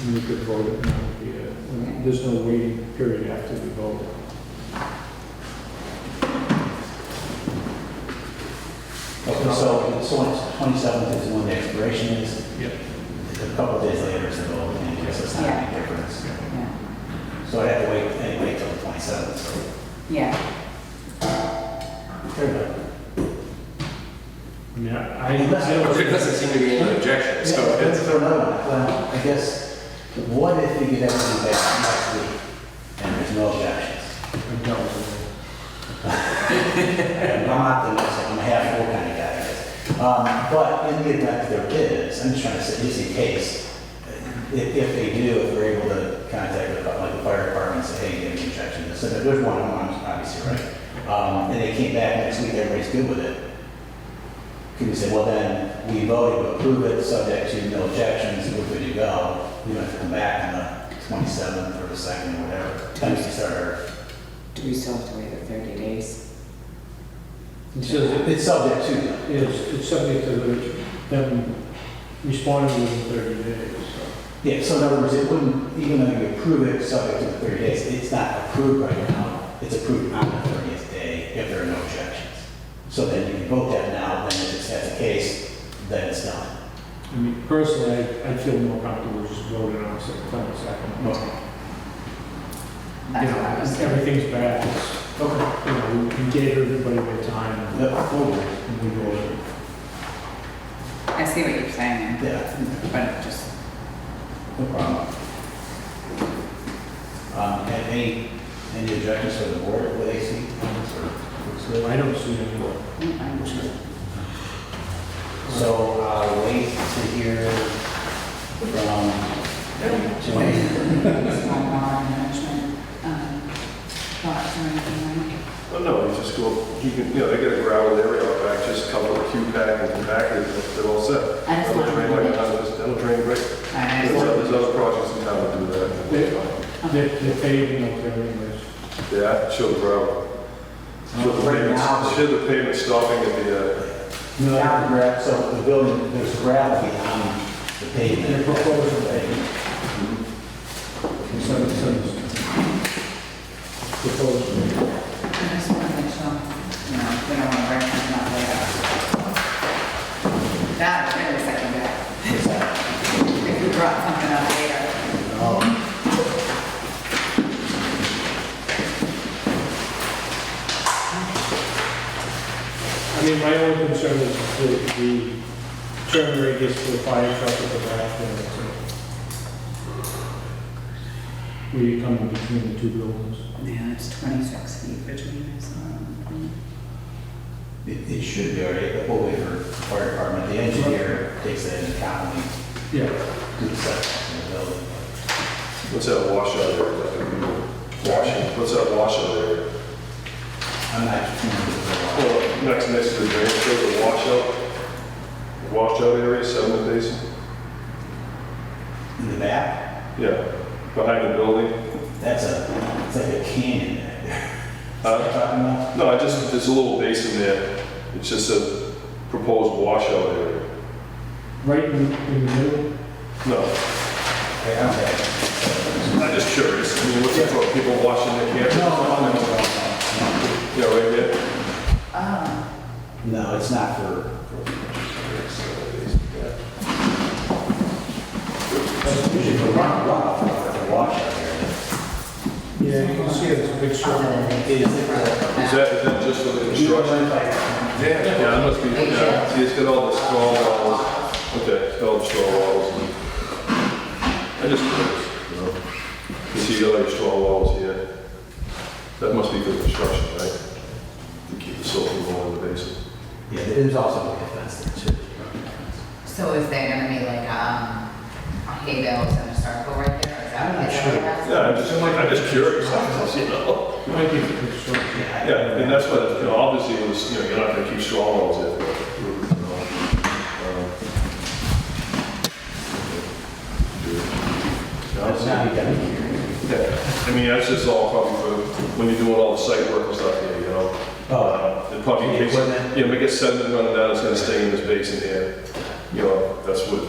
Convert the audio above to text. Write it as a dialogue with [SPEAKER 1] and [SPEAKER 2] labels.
[SPEAKER 1] and we could vote it now. if we, uh, There's no waiting period after we vote.
[SPEAKER 2] Okay, so, so on twenty-seventh is when the expiration is,
[SPEAKER 1] Yep.
[SPEAKER 2] a couple days later is the vote, and it's oh, just not any difference.
[SPEAKER 3] Yeah,
[SPEAKER 2] So I'd have to wait, anyway, till the twenty-seventh, so.
[SPEAKER 3] yeah,
[SPEAKER 2] fair enough.
[SPEAKER 1] I mean, I, I
[SPEAKER 2] Unless-
[SPEAKER 1] I don't-
[SPEAKER 4] There doesn't seem to be any objection, so
[SPEAKER 2] Yeah,
[SPEAKER 4] it's,
[SPEAKER 2] For another one, well, Um, I guess, what if we could have it back next week, and there's no objections?
[SPEAKER 1] I don't.
[SPEAKER 2] I'm not the most, I'm a half full kind of guy, I guess. Um, But in the event there is, I'm just trying to say, just in case, if, if they do, if we're able to contact the, like, the fire department, and say, hey, you have an objection, to this. so there's one on one, obviously, right? Um, and they came back next week, everybody's good with it. Can we say, well, then, we voted to approve it, subject to no objections, we're good to go. We don't have to come back on the twenty-seventh or the second, or whatever, time we start our
[SPEAKER 3] do we still have to wait the thirty days?
[SPEAKER 1] It says,
[SPEAKER 2] It's subject to, though.
[SPEAKER 1] it's, it's subject to the- them responding within 30 days, so.
[SPEAKER 2] Yeah, so in other words, it wouldn't, even though you approve it subject to the 30 days, it's not approved right now. It's approved on the 30th day if there are no objections. So then you can vote that now, then if it's that's the case, then it's done.
[SPEAKER 1] I mean, personally, I, I feel more comfortable just voting on September 2nd. But, you
[SPEAKER 3] That's what I
[SPEAKER 1] know,
[SPEAKER 3] was thinking.
[SPEAKER 1] everything's back, it's, you
[SPEAKER 2] Okay.
[SPEAKER 1] know, we gave everybody their time
[SPEAKER 2] Yep, forward.
[SPEAKER 1] and we voted.
[SPEAKER 3] I see what you're saying,
[SPEAKER 2] Yeah,
[SPEAKER 3] but just,
[SPEAKER 2] no problem. Um, and any, any objections for the board, what they see?
[SPEAKER 1] So I don't see any,
[SPEAKER 3] mm, I'm just-
[SPEAKER 2] So I'll wait to hear from Joanne.
[SPEAKER 3] It's not law and management, um, thoughts or anything like
[SPEAKER 5] Well, no, you just go, you can, you know, they got a gravel area out back, just cover a few pack and compact it, they're all set.
[SPEAKER 3] I just
[SPEAKER 5] That'll
[SPEAKER 3] want
[SPEAKER 5] drain
[SPEAKER 3] to-
[SPEAKER 5] like a ton of- That'll drain great.
[SPEAKER 3] that. I-
[SPEAKER 5] There's other- there's other projects in town that do that. and it's fine.
[SPEAKER 1] they're, they're paving up there anyways.
[SPEAKER 5] Yeah, show the gravel. Show the
[SPEAKER 2] Right
[SPEAKER 5] pavement,
[SPEAKER 2] now-
[SPEAKER 5] show the pavement stopping at the, uh,
[SPEAKER 2] No, not the gra- so the building, there's gravity on the pavement.
[SPEAKER 1] They're proposing pavement. So, so, proposed.
[SPEAKER 3] I just want to make sure, you know, we don't want to break them up later. That, wait a second, that,
[SPEAKER 2] Is that-
[SPEAKER 3] if you brought something up later,
[SPEAKER 2] oh,
[SPEAKER 1] I mean, my only concern is the, the turn radius for the fire truck at the back there. so. Where you come in between the two buildings.
[SPEAKER 3] yeah, it's twenty-six feet between us, um,
[SPEAKER 2] It, it should be all right, but we'll wait for fire department, the engineer takes that into account when
[SPEAKER 1] Yeah.
[SPEAKER 2] he do the setbacks in the building.
[SPEAKER 5] what's that washout area? like, Washing, what's that washout area?
[SPEAKER 2] I'm not, sure.
[SPEAKER 5] Well, next, next to the drain, show the washout, washout area, sediment basin.
[SPEAKER 2] in the back,
[SPEAKER 5] Yeah, behind the building.
[SPEAKER 2] that's a, it's like a canyon back there. Is that what
[SPEAKER 5] Uh,
[SPEAKER 2] you're talking about?
[SPEAKER 5] No, I just, there's a little basin there. It's just a proposed washout area.
[SPEAKER 1] Right in, in the middle,
[SPEAKER 5] No,
[SPEAKER 2] Okay, I'm back.
[SPEAKER 5] I'm just curious. I mean, what's it for? People washing their
[SPEAKER 2] No,
[SPEAKER 5] camper?
[SPEAKER 2] no, no, no, no.
[SPEAKER 5] Yeah, right there.
[SPEAKER 3] oh,
[SPEAKER 2] No, it's not for. for- That's usually for run- runoff, not for wash out there.
[SPEAKER 1] yeah, you can see it's a big
[SPEAKER 3] Uh-huh.
[SPEAKER 1] circle.
[SPEAKER 2] It is for-
[SPEAKER 5] Is that, is that just for the
[SPEAKER 2] You don't
[SPEAKER 5] construction?
[SPEAKER 2] mind if I-
[SPEAKER 5] Yeah, yeah, it must be, yeah. See, it's got all the straw walls. Okay, it's got all the straw walls. I just curious, you know. You see, you got like straw walls here. That must be for construction, right? To keep the silt from going in the basin.
[SPEAKER 2] Yeah, there's also a fence there too.
[SPEAKER 6] So is there gonna be like, um, hay bales in a circle right there? Is that what they're
[SPEAKER 5] Yeah, I'm just, I'm just curious. You know?
[SPEAKER 1] Might be for construction.
[SPEAKER 5] Yeah, and that's what, you know, obviously it was, you know, you're not gonna keep straw walls there. but, you know, um, um, Yeah,
[SPEAKER 2] That's
[SPEAKER 5] that's-
[SPEAKER 2] not even here.
[SPEAKER 5] yeah. I mean, that's just all probably for, when you're doing all the site work and stuff here, you know?
[SPEAKER 2] Oh,
[SPEAKER 5] Uh, It probably,
[SPEAKER 2] Yeah,
[SPEAKER 5] takes-
[SPEAKER 2] wasn't it?
[SPEAKER 5] you know, make a sediment running down, it's gonna stay in this basin here. You know, that's what,